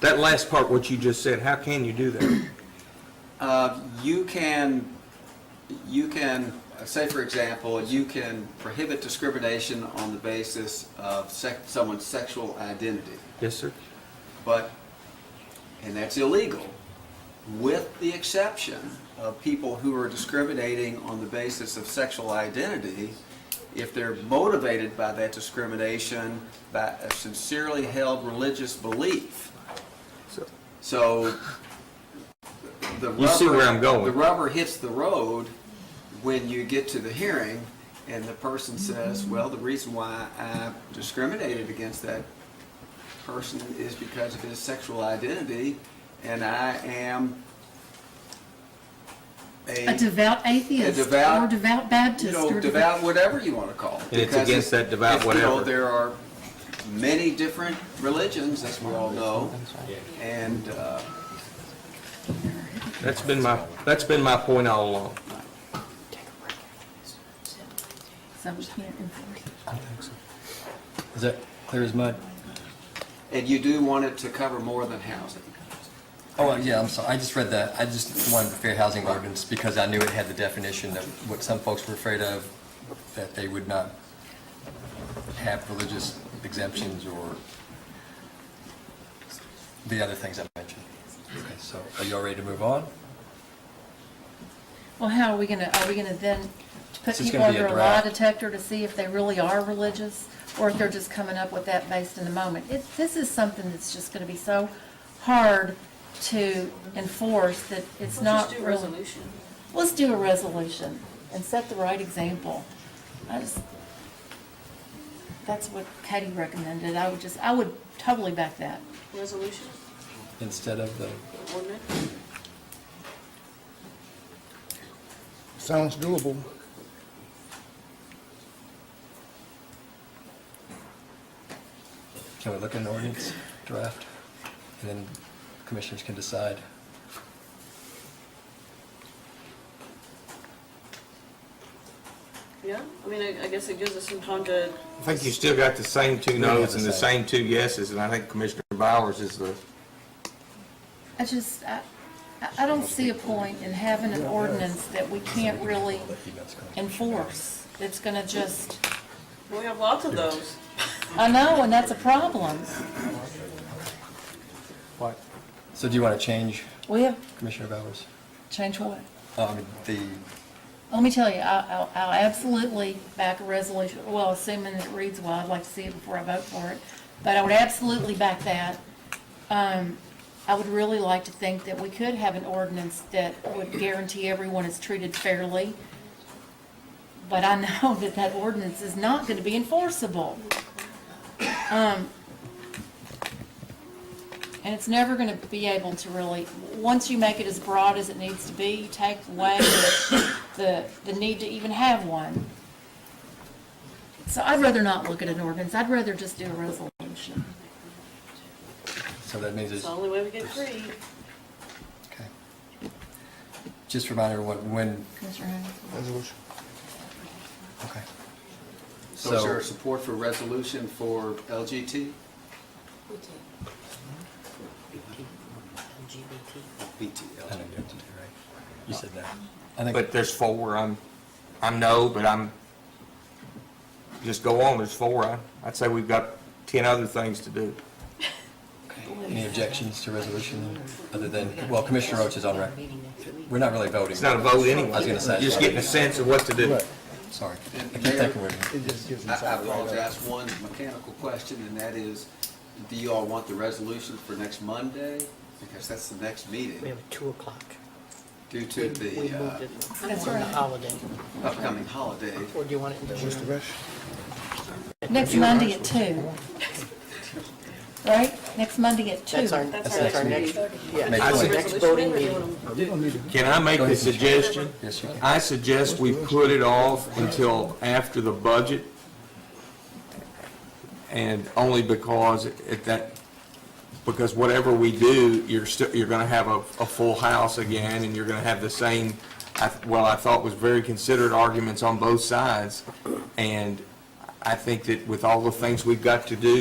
That last part, what you just said, how can you do that? Uh, You can, you can, uh, say for example, you can prohibit discrimination on the basis of sec- someone's sexual identity, Yes, sir. but, and that's illegal, with the exception of people who are discriminating on the basis of sexual identity, if they're motivated by that discrimination by a sincerely held religious belief. So- So the You see where rubber- I'm going. The rubber hits the road when you get to the hearing and the person says, well, the reason why I discriminated against that person is because of his sexual identity and I am A devout atheist A devout- or devout Baptist. you know, or devout, whatever you want to call it. And it's Because against that devout if, You know, whatever. there are many different religions, as we all know, and uh, That's been my, that's been my point all along. So we can't enforce it. Is that clear as mud? and you do want it to cover more than housing. Oh, yeah, I'm sorry, I just read that, I just wanted the fair housing ordinance because I knew it had the definition that what some folks were afraid of, that they would not have religious exemptions or the other things I mentioned. Okay, so are you all ready to move on? Well, how are we gonna, are we gonna then put So it's people gonna be a under a lie draft. detector to see if they really are religious? Or if they're just coming up with that based in the moment? It, this is something that's just gonna be so hard to enforce that it's not Let's just do a really. resolution. Let's do a resolution and set the right example. I just, that's what Katie recommended. I would just, I would totally back that. Resolution, Instead of the, ordinance? Sounds doable. can we look at an ordinance draft? And then commissioners can decide. Yeah, I mean, I, I guess it gives us some time to, I think you still got the same two have noes the and the same. same two yeses, and I think Commissioner Bowers is the, I just, I, I- I don't see a point in having an ordinance that we can't really enforce. It's gonna just, we have lots of those. I know, and that's a problem. So do you want to change, We have, Commissioner Bowers? change what? Um, the, Let me tell you, I- I'll, I'll absolutely back a resolution, well, assuming it reads well, I'd like to see it before I vote for it, but I would absolutely back that. Um, I would really like to think that we could have an ordinance that would guarantee everyone is treated fairly, but I know that that ordinance is not gonna be enforceable. Um, and it's never going to be able to really, once you make it as broad as it needs to be, you take away the, the, the need to even have one. So I'd rather not look at an ordinance, I'd rather just do a resolution. so that means It's it's. the only way we get free. Okay. Just remind everyone when, Commissioner Haynes? Resolution. okay. So is there So, support for resolution for LGT, BT, I know you have to do right. You said that. I but think, there's four, I'm, I'm no, but I'm, just go on, there's four. I- I'd say we've got 10 other things to do. any objections to resolution other than, well, Commissioner Roach is on record. We're not really voting. It's not a vote anyway. I was gonna say. Just getting a sense of what to do. Right. Sorry. I And keep Mayor- thinking we're, It just gives I I them something. to write apologize, one mechanical question, and that is, do you all want the resolution for next Monday? Because that's the next We meeting have a two o'clock. due We to the moved uh, it That's on the right. holiday. upcoming holiday. Or do you want it in about. June? Mr. Rush? Next Monday at two. Right, next Monday at two. That's our, That's that's our our next, next yeah, May that's our twenty. next voting meeting. You don't need to. Can I make a suggestion? yes, you can. I suggest we put it off until after the budget, and only because at that, because whatever we do, you're still, you're gonna have a, a full house again, and you're gonna have the same, I- well, I thought was very considered arguments on both sides, and I think that with all the things we've got to do